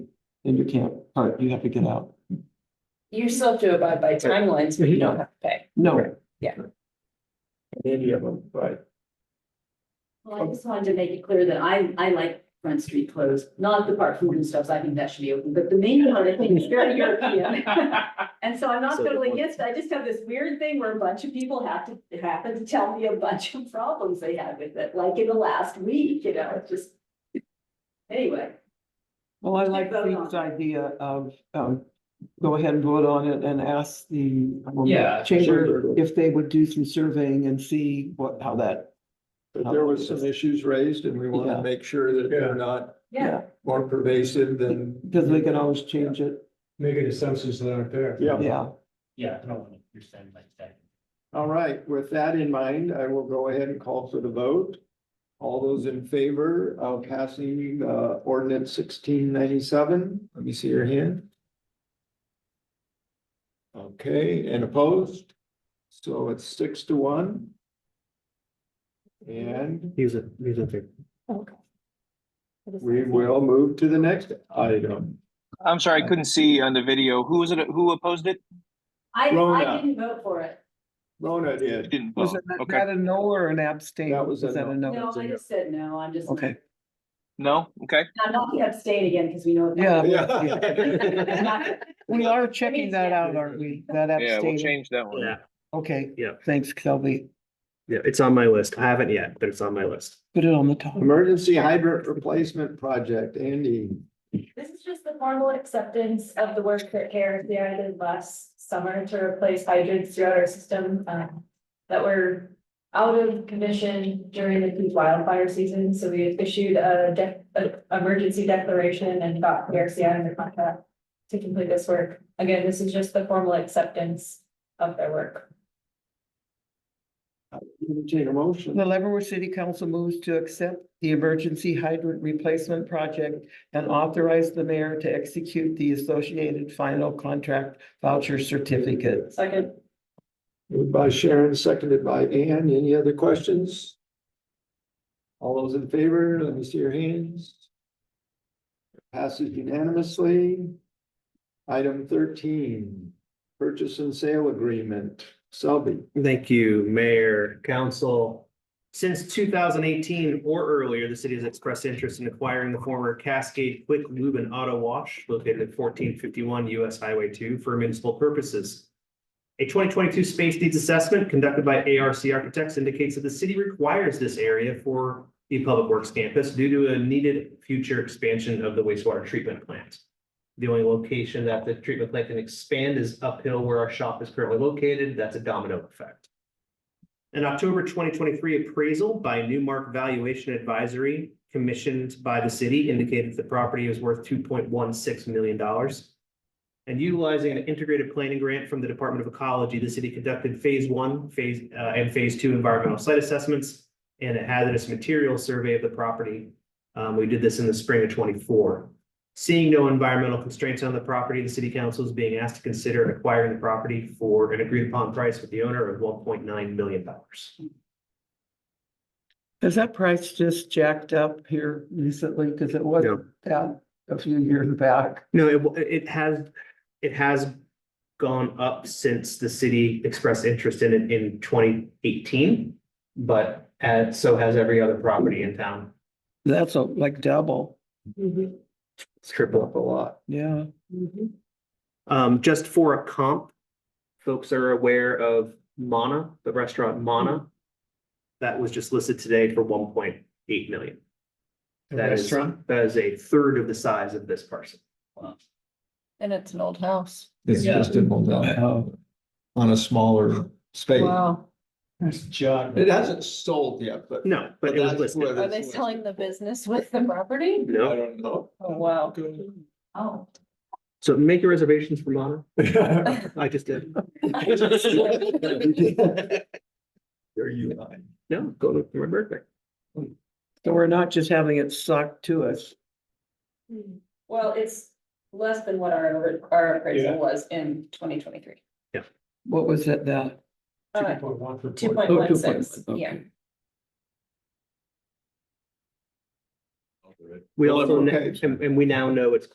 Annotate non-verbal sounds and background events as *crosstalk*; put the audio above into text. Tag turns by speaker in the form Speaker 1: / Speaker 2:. Speaker 1: then you can't park, you have to get out.
Speaker 2: You still have to abide by timelines, but you don't have to pay.
Speaker 1: No,
Speaker 3: Any of them, but
Speaker 4: Well, I just wanted to make it clear that I, I like Front Street closed, not the park food and stuff, I think that should be open, but the main one, I think, is very
Speaker 2: *laughs*
Speaker 4: European. And so I'm not
Speaker 3: So the
Speaker 4: totally
Speaker 3: point-
Speaker 4: against, it. I just have this weird thing where a bunch of people have to, happen to tell me a bunch of problems they had with it, like in the last week, you know, it's just. Anyway,
Speaker 1: *laughs* well, I like
Speaker 4: Vote on
Speaker 1: Pete's
Speaker 4: it.
Speaker 1: idea of, um, go ahead and vote on it and ask the um,
Speaker 5: Yeah,
Speaker 1: chamber
Speaker 3: sure.
Speaker 1: if they would do some surveying and see what, how that,
Speaker 3: but there was some issues raised and we want
Speaker 1: Yeah.
Speaker 3: to make sure that they're not
Speaker 4: yeah,
Speaker 3: more pervasive than.
Speaker 1: because we can always change it.
Speaker 6: making assumptions that aren't there.
Speaker 3: Yeah,
Speaker 1: Yeah,
Speaker 5: Yeah, I don't want to understand like that.
Speaker 3: all right. With that in mind, I will go ahead and call for the vote. All those in favor of passing uh ordinance sixteen ninety-seven, let me see your hand. Okay, and opposed? So it's six to one. And
Speaker 6: He's a, he's a big.
Speaker 3: we will move to the next item.
Speaker 7: I'm
Speaker 1: Uh,
Speaker 7: sorry, I couldn't see on the video. Who was it? Who opposed it?
Speaker 4: I, I
Speaker 3: Rona.
Speaker 4: didn't vote for it,
Speaker 3: Rona
Speaker 7: You
Speaker 3: did.
Speaker 7: Didn't
Speaker 1: was
Speaker 7: vote.
Speaker 1: it not-
Speaker 7: Okay.
Speaker 1: that a no or an abstain?
Speaker 3: That was a no.
Speaker 4: no, I just said no, I'm just.
Speaker 1: Okay.
Speaker 7: No? Okay.
Speaker 4: I'm not gonna abstain again, because we know. *laughs*
Speaker 1: Yeah.
Speaker 3: *laughs* Yeah.
Speaker 1: We are checking that out, aren't we? That
Speaker 7: Yeah, we'll
Speaker 1: abstain,
Speaker 7: change that one.
Speaker 6: Yeah,
Speaker 1: okay,
Speaker 6: yeah,
Speaker 1: thanks, Kelby,
Speaker 6: yeah, it's on my list. I haven't yet, but it's on my list.
Speaker 1: put it on the top.
Speaker 3: Emergency hydrant replacement project, Andy.
Speaker 2: This is just the formal acceptance of the work that KRCI did last summer to replace hydrants throughout our system, um, that were out of commission during the peak wildfire season, so we issued a dec- a emergency declaration and got E KRCI under contract to complete this work. Again, this is just the formal acceptance of their work.
Speaker 3: Entertain a motion.
Speaker 1: The Leavenworth City Council moves to accept the emergency hydrant replacement project and authorize the mayor to execute the associated final contract voucher certificate.
Speaker 2: Second.
Speaker 3: Moved by Sharon, seconded by Ann. Any other questions? All those in favor, let me see your hands. Passes unanimously. Item thirteen, purchase and sale agreement. Selby.
Speaker 6: Thank you, Mayor, Council. Since two thousand eighteen or earlier, the city has expressed interest in acquiring the former Cascade Quick Lube and Auto Wash located at fourteen fifty-one US Highway two for municipal purposes. A twenty twenty-two space needs assessment conducted by ARC Architects indicates that the city requires this area for the Public Works campus due to a needed future expansion of the wastewater treatment plant. The only location that the treatment plant can expand is uphill where our shop is currently located. That's a domino effect. An October twenty twenty-three appraisal by Newmark Valuation Advisory commissioned by the city indicated the property is worth two point one six million dollars. And utilizing an integrated planning grant from the Department of Ecology, the city conducted phase one, phase, uh, and phase two environmental site assessments and a hazardous material survey of the property. Um, we did this in the spring of twenty-four. Seeing no environmental constraints on the property, the city council is being asked to consider acquiring the property for an agreed upon price with the owner of one point nine million dollars.
Speaker 1: Has that price just jacked up here recently? Because it wasn't that a few years back.
Speaker 6: No, it, wa- it has, it has gone up since the city expressed interest in it in twenty eighteen. But, uh, so has every other property in town.
Speaker 1: That's a- like double,
Speaker 6: It's triple
Speaker 3: Up a lot.
Speaker 1: yeah.
Speaker 6: Um, just for a comp, folks are aware of Mana, the restaurant Mana. That was just listed today for one point eight million. That is, that is a third of the size of this parcel.
Speaker 2: And it's an old house.
Speaker 3: It's
Speaker 5: Yeah.
Speaker 3: just in Moldova
Speaker 1: Oh,
Speaker 3: on a smaller space.
Speaker 2: Wow.
Speaker 5: There's John.
Speaker 3: It hasn't *laughs* sold yet, but.
Speaker 6: No, but it was listed.
Speaker 2: Are they selling the business with the property?
Speaker 3: I
Speaker 6: No,
Speaker 3: don't know.
Speaker 2: Oh, wow.
Speaker 4: Oh.
Speaker 6: so make your reservations for Mana. I just
Speaker 3: *laughs*
Speaker 6: did.
Speaker 3: There you lie.
Speaker 6: No, go to my birthday.
Speaker 1: So we're not just having it sucked to us.
Speaker 2: *laughs* Well, it's less than what our, our appraisal
Speaker 3: Yeah.
Speaker 2: was in twenty twenty-three.
Speaker 1: What was it that?
Speaker 2: Two point
Speaker 1: Oh,
Speaker 2: one
Speaker 1: 2.1,
Speaker 2: six, yeah.
Speaker 1: okay.
Speaker 6: We
Speaker 3: Well,
Speaker 6: also, kn-
Speaker 3: okay.
Speaker 6: and, and we now know it's